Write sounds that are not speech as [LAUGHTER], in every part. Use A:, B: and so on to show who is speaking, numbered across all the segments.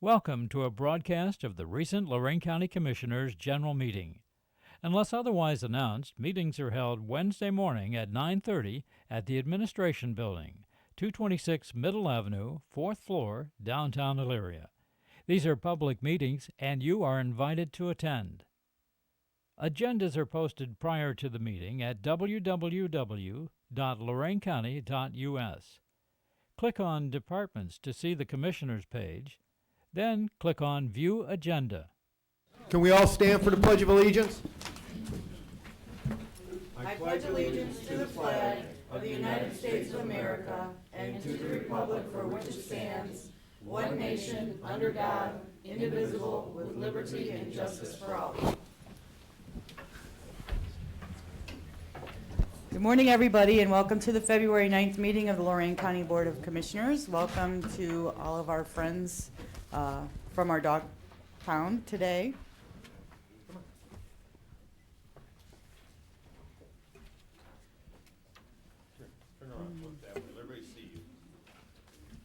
A: Welcome to a broadcast of the recent Lorraine County Commissioners' General Meeting. Unless otherwise announced, meetings are held Wednesday morning at 9:30 at the Administration Building, 226 Middle Avenue, 4th floor, downtown Elyria. These are public meetings and you are invited to attend. Agendas are posted prior to the meeting at www.loraincounty.us. Click on Departments to see the Commissioners page, then click on View Agenda.
B: Can we all stand for the Pledge of Allegiance?
C: Good morning, everybody, and welcome to the February 9th meeting of the Lorraine County Board of Commissioners. Welcome to all of our friends uh, from our dog pound today.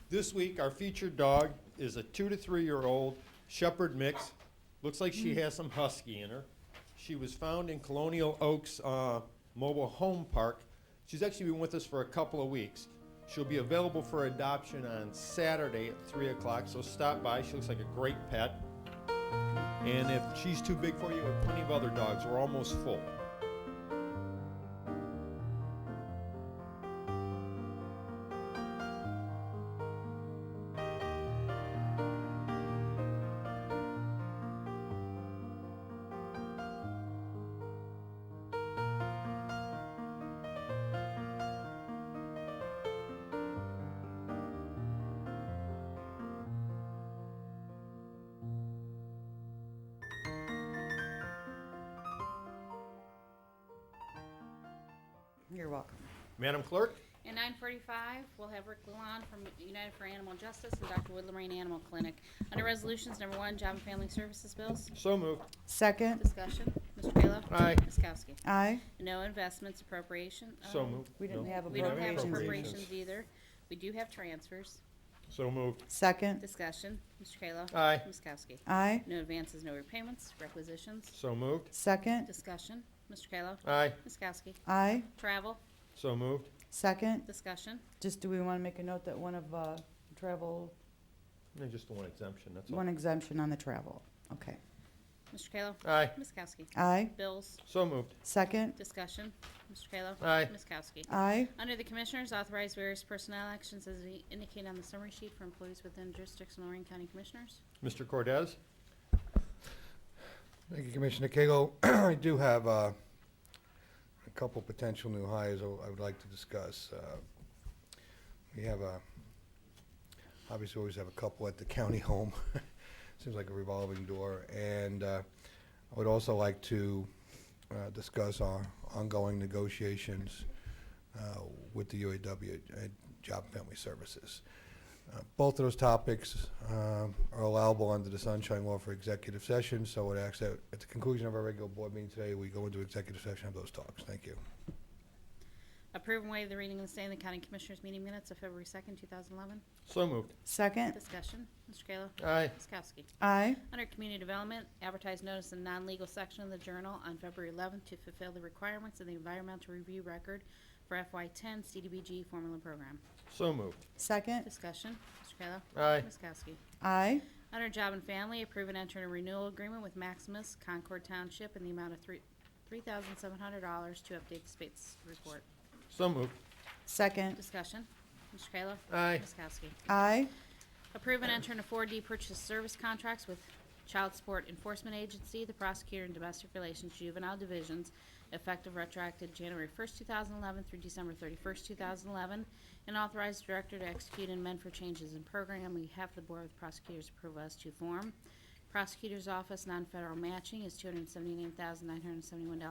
B: This week, our featured dog is a two to three-year-old Shepherd mix. Looks like she has some husky in her. She was found in Colonial Oaks uh, Mobile Home Park. She's actually been with us for a couple of weeks. She'll be available for adoption on Saturday at three o'clock, so stop by. She looks like a great pet. And if she's too big for you, we have plenty of other dogs. We're almost full.
C: You're welcome.
B: Madam Clerk?
D: At nine forty-five, we'll have Rick Lalonde from United for Animal Justice and Dr. Wood Lorraine Animal Clinic. Under Resolutions Number One, Job and Family Services Bills.
B: So moved.
C: Second,
D: Discussion. Mr. Kayla.
B: Aye.
D: Ms. Kowski.
C: aye.
D: No investments appropriation.
B: So
D: Um,
B: moved.
C: We didn't
B: No.
C: have
D: We don't have
C: appropriations.
D: appropriations either. We do have transfers.
C: e-
B: So moved.
C: Second,
D: Discussion. Mr. Kayla.
B: Aye.
D: Ms. Kowski.
C: aye.
D: No advances, no repayments, requisitions.
B: So moved.
C: Second,
D: Discussion. Mr. Kayla.
B: Aye.
D: Ms. Kowski.
C: aye.
D: Travel.
B: So moved.
C: Second,
D: Discussion.
C: just do we want to make a note that one of uh, travel,
B: No, just the one exemption, that's all.
C: one exemption on the travel? Okay,
D: Mr. Kayla.
B: Aye.
D: Ms. Kowski.
C: aye.
D: Bills.
B: So moved.
C: Second,
D: Discussion. Mr. Kayla.
B: Aye.
D: Ms. Kowski.
C: aye.
D: Under the Commissioners, authorize various personnel actions as we indicate on the summary sheet for employees within jurisdiction of Lorraine County Commissioners.
B: Mr. Cordez?
E: Thank you, Commissioner Cagle. [CLEARS THROAT] I do have uh, a couple potential new hires I I would like to discuss. Uh, We have a, obviously, we always have a couple at the county [LAUGHS] home. Seems like a revolving door. And uh, I would also like to uh, discuss our ongoing negotiations uh, with the UAW at Job and Family Services. Uh, Both of those topics um, are allowable under the Sunshine Law for executive session, so I would ask that at the conclusion of our regular board meeting today, we go into executive session of those talks. Thank you.
D: Approve and waive the reading and staying in the County Commissioners meeting minutes of February 2nd, 2011.
B: So moved.
C: Second,
D: Discussion. Mr. Kayla.
B: Aye.
D: Ms. Kowski.
C: aye.
D: Under Community Development, advertise notice in non-legal section of the Journal on February 11th to fulfill the requirements of the environmental review record for FY10 CDBG formula program.
B: So moved.
C: Second,
D: Discussion. Mr. Kayla.
B: Aye.
D: Ms. Kowski.
C: aye.
D: Under Job and Family, approve and enter a renewal agreement with Maximus Concord Township in the amount of three three $3,700 to update the spates report.
B: So moved.
C: Second,
D: Discussion. Mr. Kayla?
B: Aye.
D: Ms. Kowski?
C: aye.
D: Approve and enter a 4D purchase service contracts with Child Support Enforcement Agency, the Prosecutor and Domestic Relations Juvenile Divisions, effective retroactive January 1st, 2011 through December 31st, 2011, and authorize Director to execute and amend for changes in program on behalf of the Board with Prosecutors approval as to form. Prosecutor's Office non-federal matching is $279,971